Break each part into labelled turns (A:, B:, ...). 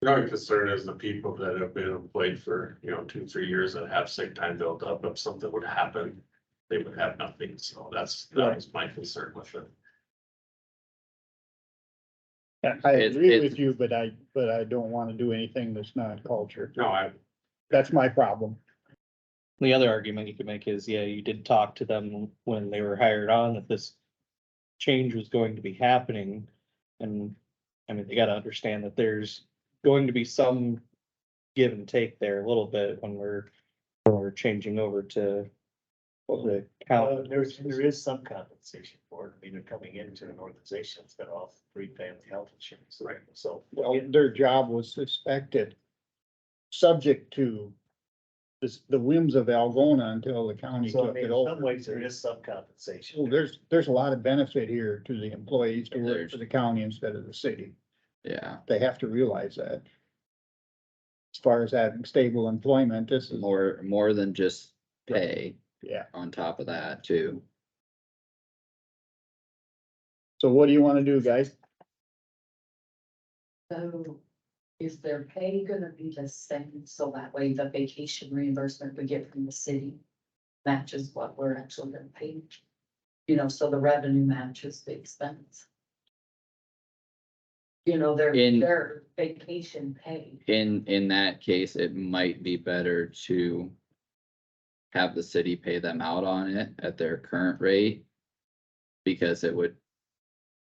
A: The only concern is the people that have been employed for, you know, two, three years that have sick time built up, if something would happen, they would have nothing, so that's, that was my concern with it.
B: I
C: It's-
B: agree
C: it's-
B: with you, but I, but I don't want to do anything that's not culture.
A: No, I,
B: That's my problem.
D: The other argument you could make is, yeah, you did talk to them when they were hired on that this change was going to be happening. And, I mean, they gotta understand that there's going to be some give and take there a little bit when we're, when we're changing over to what the
E: Uh,
D: count.
E: there's, there is some compensation for it. I mean, they're coming into an organization that's got all free family health insurance. Right. So.
B: Well, their job was suspected, subject to this, the whims of Algona until the county
E: So I
B: took
E: mean,
B: it
E: in
B: over.
E: some ways, there is some
B: Well,
E: compensation.
B: there's, there's a lot of benefit here to the employees to work
C: There's-
B: for the county instead of the city.
C: Yeah,
B: They have to realize that. As far as having stable employment, this is,
C: more, more than just pay
B: yeah.
C: on top of that too.
B: So what do you want to do, guys?
F: So is their pay gonna be the same, so that way the vacation reimbursement we get from the city matches what we're actually gonna pay? You know, so the revenue matches the expense. You know, their,
C: In-
F: their vacation pay,
C: In, in that case, it might be better to have the city pay them out on it at their current rate. Because it would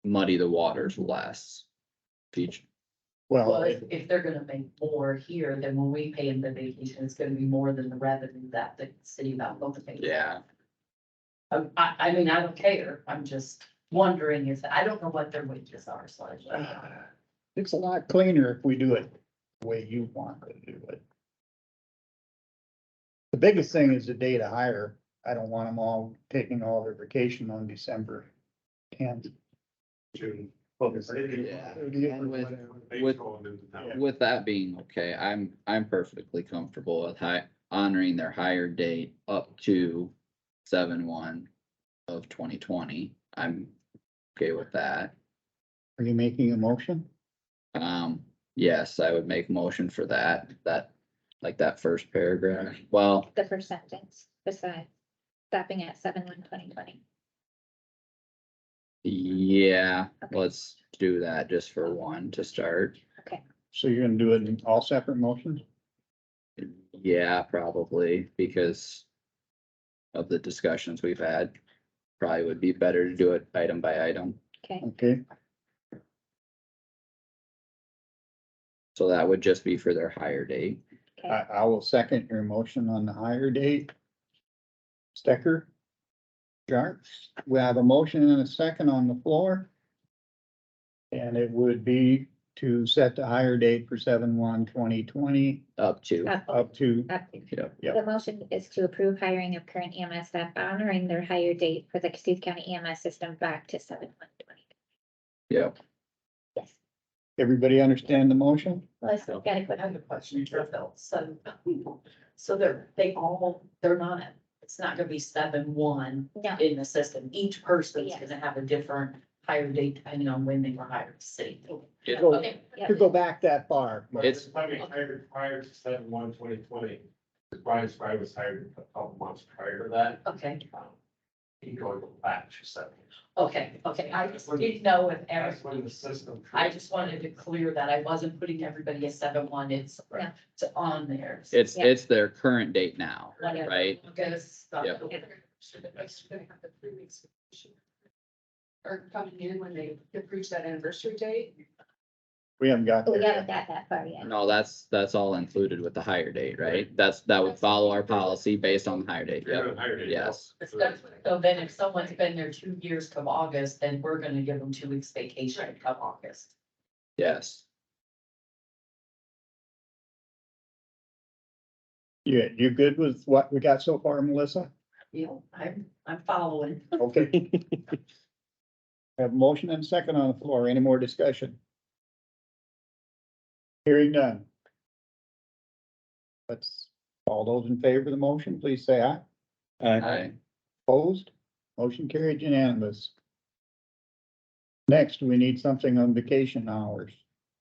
C: muddy the waters less. Future,
B: Well,
F: well, if, if they're gonna make more here, then when we pay them the vacation, it's gonna be more than the revenue that the city about both pays.
C: yeah,
F: Um, I, I mean, I don't care, I'm just wondering if, I don't know what their wages are, so I just.
B: it's a lot cleaner if we do it the way you want to do it. The biggest thing is the day to hire. I don't want them all taking all their vacation on December tenth.
A: June.
C: Yeah. And with- With- with that being okay, I'm, I'm perfectly comfortable with hi, honoring their hire date up to seven one of twenty twenty. I'm okay with that.
B: Are you making a motion?
C: Um, yes, I would make motion for that, that, like that first paragraph. Well,
G: the first sentence besides stopping at seven one twenty twenty.
C: yeah,
G: Okay.
C: let's do that just for one to start.
B: So you're gonna do it in all separate motions?
C: Yeah, probably because of the discussions we've had. Probably would be better to do it item by item.
G: Okay,
B: Okay,
C: So that would just be for their hire date.
B: I, I will second your motion on the hire date. Stecker? Jarks, we have a motion and a second on the floor. And it would be to set the hire date for seven one twenty twenty
C: Up to,
G: up,
B: up to,
G: up.
C: Yep.
B: Yep.
G: The motion is to approve hiring of current EMS staff honoring their hire date for the Cassuth County EMS system back to seven one twenty.
C: Yep.
G: Yes,
B: everybody understand the motion?
G: Melissa, you got a
F: But I
G: question?
F: have a question, Phil, so, so they're, they all, they're not, it's not gonna be seven one
G: No,
F: in the system, each person's
G: Yes.
F: gonna have a different hire date depending on when they were hired, city.
C: Yeah.
B: Go-
F: Okay,
B: To go back that far,
C: It's-
A: Probably hired prior to seven one twenty twenty, Brian Spry was hired a couple months prior to that.
F: okay,
A: um, He going back to seven.
F: okay, okay, I just didn't know if
A: That's
F: everyone,
A: when the system.
F: I just wanted to clear that I wasn't putting everybody as seven one, it's,
G: Yeah.
F: it's on there. so
C: it's,
G: Yeah.
C: it's their current date now,
F: whatever.
C: right?
F: Okay, stop.
C: Yep.
F: Or coming in when they approach that anniversary date.
B: we haven't got
G: Oh, we
B: there.
G: haven't got that far yet.
C: No, that's, that's all included with the hire date, right? That's, that would follow our policy based on the hire date, yep, yes.
F: So then if someone's been there two years come August, then we're gonna give them two weeks vacation come August.
C: Yes,
B: You, you good with what we got so far, Melissa?
F: You know, I'm, I'm following.
B: Okay. Have a motion and a second on the floor. Any more discussion? Hearing none. Let's, all those in favor of the motion, please say aye.
D: Uh,
C: I,
B: Opposed? Motion carried unanimous. Next, we need something on vacation hours.